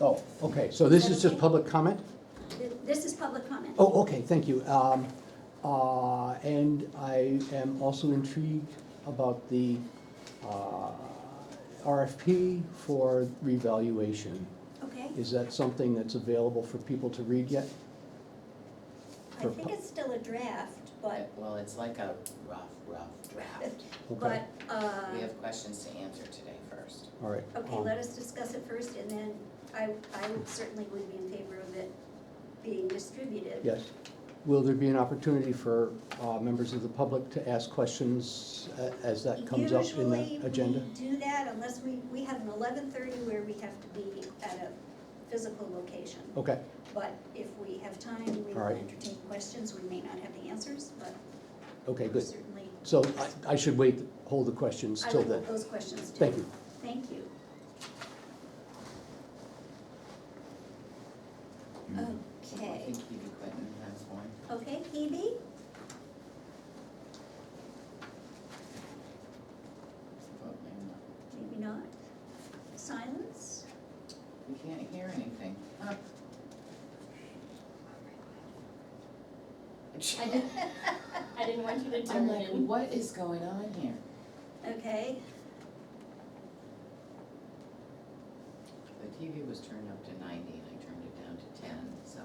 Oh, okay, so this is just public comment? Th- This is public comment. Oh, okay, thank you. Um, uh, And I am also intrigued about the uh, RFP for revaluation. Okay? Is that something that's available for people to read yet? I think it's still a draft, but, Well, it's like a rough, rough draft. Okay. but, uh, We have questions to answer today first. All right. okay, um, let us discuss it first, and then I, I would certainly would be in favor of it being distributed. Yes. Will there be an opportunity for uh, members of the public to ask questions a- as that comes up in the agenda? Usually, we do that unless we, we have an eleven-thirty where we have to be at a physical location. Okay, But if we have time, we will All right. entertain questions, we may not have the answers, but okay, good. certainly, So I- I should wait, hold the questions I till would then. put those questions too. Thank you. Thank you. I Okay, think Hebe Clinton has one. okay, Hebe? Oh, maybe not. Maybe not. Silence? We can't hear anything. Huh. I didn't, I didn't want you to I'm turn like, it in. what is going on here? Okay, The TV was turned up to ninety and I turned it down to ten, so.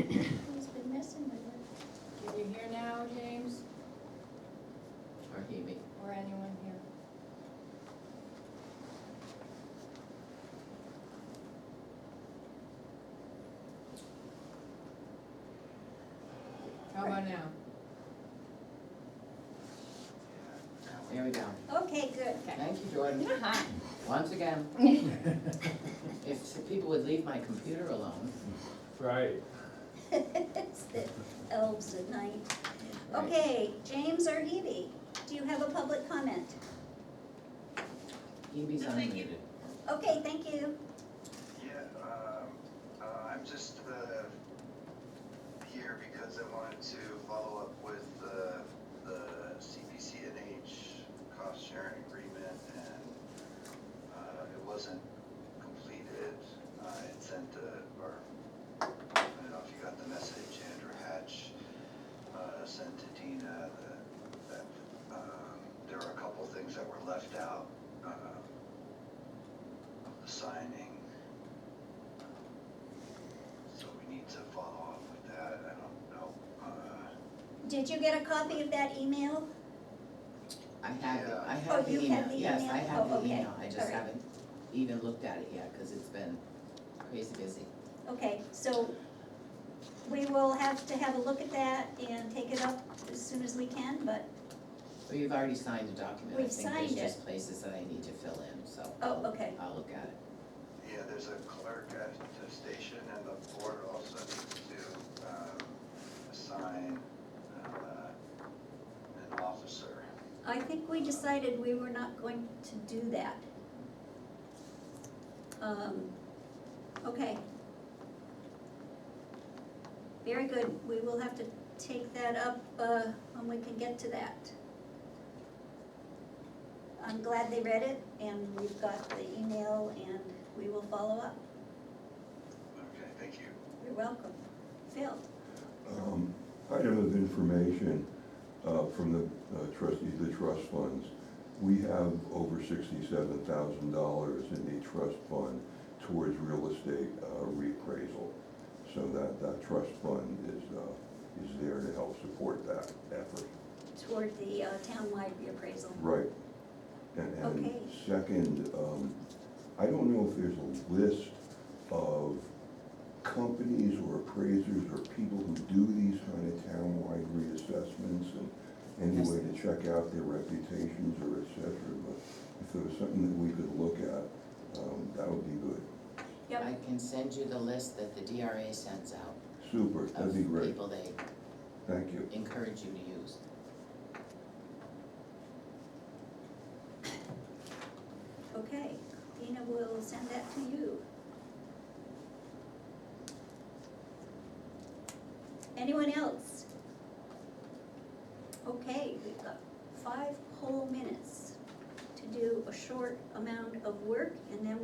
who's been messing with it? Can you hear now, James, Or Hebe. or anyone here? How about now? There Oh, we go. Okay, good. Thank you, Jordan. Hi. Once again, if the people would leave my computer alone. Right. It's the elves at night. Right. Okay, James or Hebe, do you have a public comment? Hebe's unmuted. Okay, thank you. Yeah, um, uh, I'm just, uh, here because I wanted to follow up with, uh, the CPCNH cost sharing agreement and, uh, it wasn't completed. I had sent a, or, I don't know if you got the message, Andrew Hatch, uh, sent to Dina that, that, um, there were a couple things that were left out, um, of the signing. So we need to follow up with that, I don't know, uh, Did you get a copy of that email? I have, the- I Oh, have the you email, have the yes, email? I have Oh, the okay. email, I just Alright. haven't even looked at it yet, cause it's been crazy busy. Okay, so we will have to have a look at that and take it up as soon as we can, but, So you've already signed a document, I We've think signed there's it. just places that I need to fill in, so. oh, I'll- okay, I'll look at it. yeah, there's a clerk at the station and the board also needs to, um, assign, uh, an officer. I think we decided we were not going to do that. Um, okay. Very good, we will have to take that up, uh, when we can get to that. I'm glad they read it, and we've got the email, and we will follow up. Okay, thank you. You're welcome. Phil? Um, Item of information uh, from the uh, trustee, the trust funds. We have over sixty-seven thousand dollars in the trust fund towards real estate uh, reappraisal. So that, that trust fund is, uh, is there to help support that effort. toward the uh, townwide reappraisal. Right. And, and Okay. second, um, I don't know if there's a list of companies or appraisers or people who do these kind of townwide reassessments and any Yes. way to check out their reputations or et cetera, but if there was something that we could look at, um, that would be good. Yep. I can send you the list that the DRA sends out Super, of that'd be great, people they thank you. encourage you to use. Okay, Dina will send that to you. Anyone else? Okay, we've got five whole minutes to do a short amount of work, and then